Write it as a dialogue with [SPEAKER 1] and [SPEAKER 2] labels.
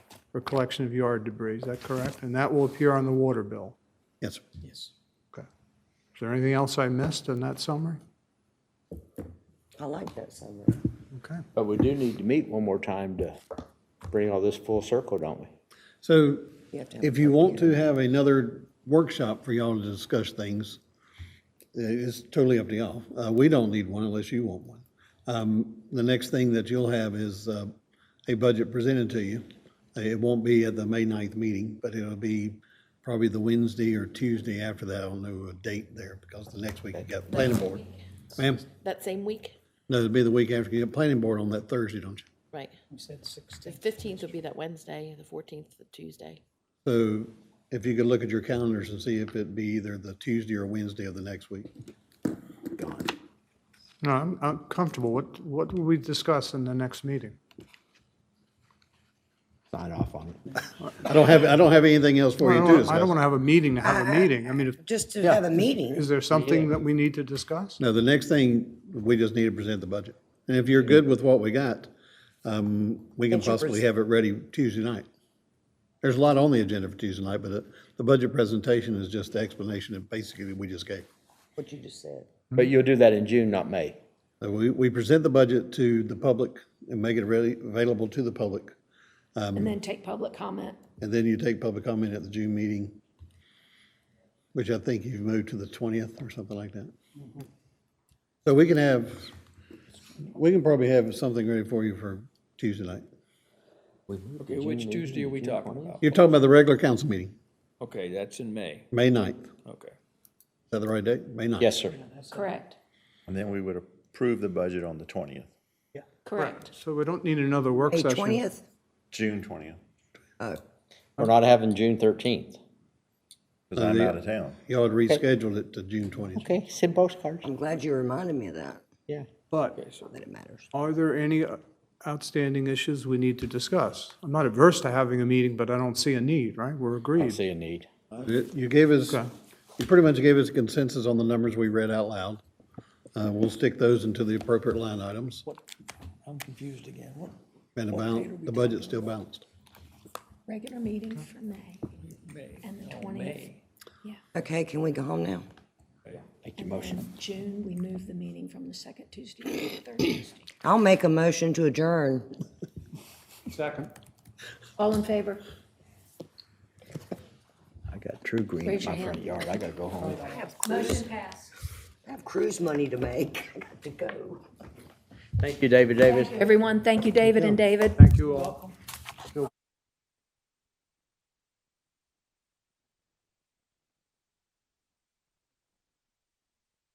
[SPEAKER 1] for collection of yard debris, is that correct? And that will appear on the water bill.
[SPEAKER 2] Yes, sir.
[SPEAKER 3] Yes.
[SPEAKER 1] Okay. Is there anything else I missed in that summary?
[SPEAKER 4] I like that summary.
[SPEAKER 1] Okay.
[SPEAKER 3] But we do need to meet one more time to bring all this full circle, don't we?
[SPEAKER 2] So
[SPEAKER 4] You have to have
[SPEAKER 2] if you want to have another workshop for y'all to discuss things, uh, it's totally up to y'all. Uh, we don't need one unless you want one. Um, the next thing that you'll have is, uh, a budget presented to you. It won't be at the May 9th meeting, but it'll be probably the Wednesday or Tuesday after that. I don't know a date there because the next week you got planning board. Ma'am,
[SPEAKER 5] That same week,
[SPEAKER 2] no, it'll be the week after you get planning board on that Thursday, don't you?
[SPEAKER 5] right? You said sixteenth. The fifteenth would be that Wednesday, the fourteenth, the Tuesday.
[SPEAKER 2] So if you could look at your calendars and see if it'd be either the Tuesday or Wednesday of the next week.
[SPEAKER 1] No, I'm, I'm comfortable. What, what will we discuss in the next meeting?
[SPEAKER 3] Sign off on it.
[SPEAKER 2] I don't have, I don't have anything else for
[SPEAKER 1] I
[SPEAKER 2] you
[SPEAKER 1] don't
[SPEAKER 2] to
[SPEAKER 1] wanna- I don't
[SPEAKER 2] discuss.
[SPEAKER 1] want to have a meeting to have a meeting. I mean, if-
[SPEAKER 4] Just to have a meeting,
[SPEAKER 1] is there something that we need to discuss?
[SPEAKER 2] No, the next thing, we just need to present the budget. And if you're good with what we got, um, we can
[SPEAKER 4] Get your
[SPEAKER 2] possibly
[SPEAKER 4] pres-
[SPEAKER 2] have it ready Tuesday night. There's a lot on the agenda for Tuesday night, but uh, the budget presentation is just the explanation that basically we just gave.
[SPEAKER 4] what you just said.
[SPEAKER 3] But you'll do that in June, not May.
[SPEAKER 2] So Uh, we, we present the budget to the public and make it ready, available to the public. um,
[SPEAKER 6] And then take public comment.
[SPEAKER 2] And then you take public comment at the June meeting, which I think you've moved to the 20th or something like that. So we can have, we can probably have something ready for you for Tuesday night.
[SPEAKER 7] Okay, which Tuesday are we talking about?
[SPEAKER 2] You're talking about the regular council meeting,
[SPEAKER 7] Okay, that's in May,
[SPEAKER 2] May 9th. Is
[SPEAKER 7] okay.
[SPEAKER 2] that the right date? May 9th?
[SPEAKER 3] Yes, sir.
[SPEAKER 6] Correct,
[SPEAKER 8] And then we would approve the budget on the 20th,
[SPEAKER 6] correct.
[SPEAKER 1] So we don't need another work
[SPEAKER 4] May
[SPEAKER 1] session.
[SPEAKER 4] twentieth? uh,
[SPEAKER 8] June 20th,
[SPEAKER 3] We're not having June thirteenth.
[SPEAKER 8] because I'm out of town.
[SPEAKER 2] Y'all had rescheduled it to June 20th.
[SPEAKER 3] Okay, send postcards.
[SPEAKER 4] I'm glad you reminded me of that,
[SPEAKER 3] Yeah.
[SPEAKER 1] But
[SPEAKER 4] that it matters.
[SPEAKER 1] are there any uh, outstanding issues we need to discuss? I'm not averse to having a meeting, but I don't see a need, right? We're
[SPEAKER 3] I
[SPEAKER 1] agreed.
[SPEAKER 3] see a need.
[SPEAKER 2] You you gave us, you pretty much gave us consensus on the numbers we read out loud. Uh, We'll stick those into the appropriate line items
[SPEAKER 7] I'm confused again. What?
[SPEAKER 2] and about, the budget's still balanced.
[SPEAKER 6] Regular meeting for May Oh, and the twentieth.
[SPEAKER 4] Okay, can we go home now?
[SPEAKER 3] Make your motion.
[SPEAKER 6] June, we move the meeting from the second Tuesday to the third Tuesday.
[SPEAKER 4] I'll make a motion to adjourn.
[SPEAKER 6] All in favor?
[SPEAKER 3] I got true green in
[SPEAKER 6] Raise your
[SPEAKER 3] my front
[SPEAKER 6] hand.
[SPEAKER 3] yard. I gotta go home.
[SPEAKER 4] I have cruise,
[SPEAKER 6] Motion passed.
[SPEAKER 4] I have cruise money to make, I got to go.
[SPEAKER 3] Thank you, David Davis.
[SPEAKER 6] Everyone, thank you, David and David.
[SPEAKER 1] Thank you all.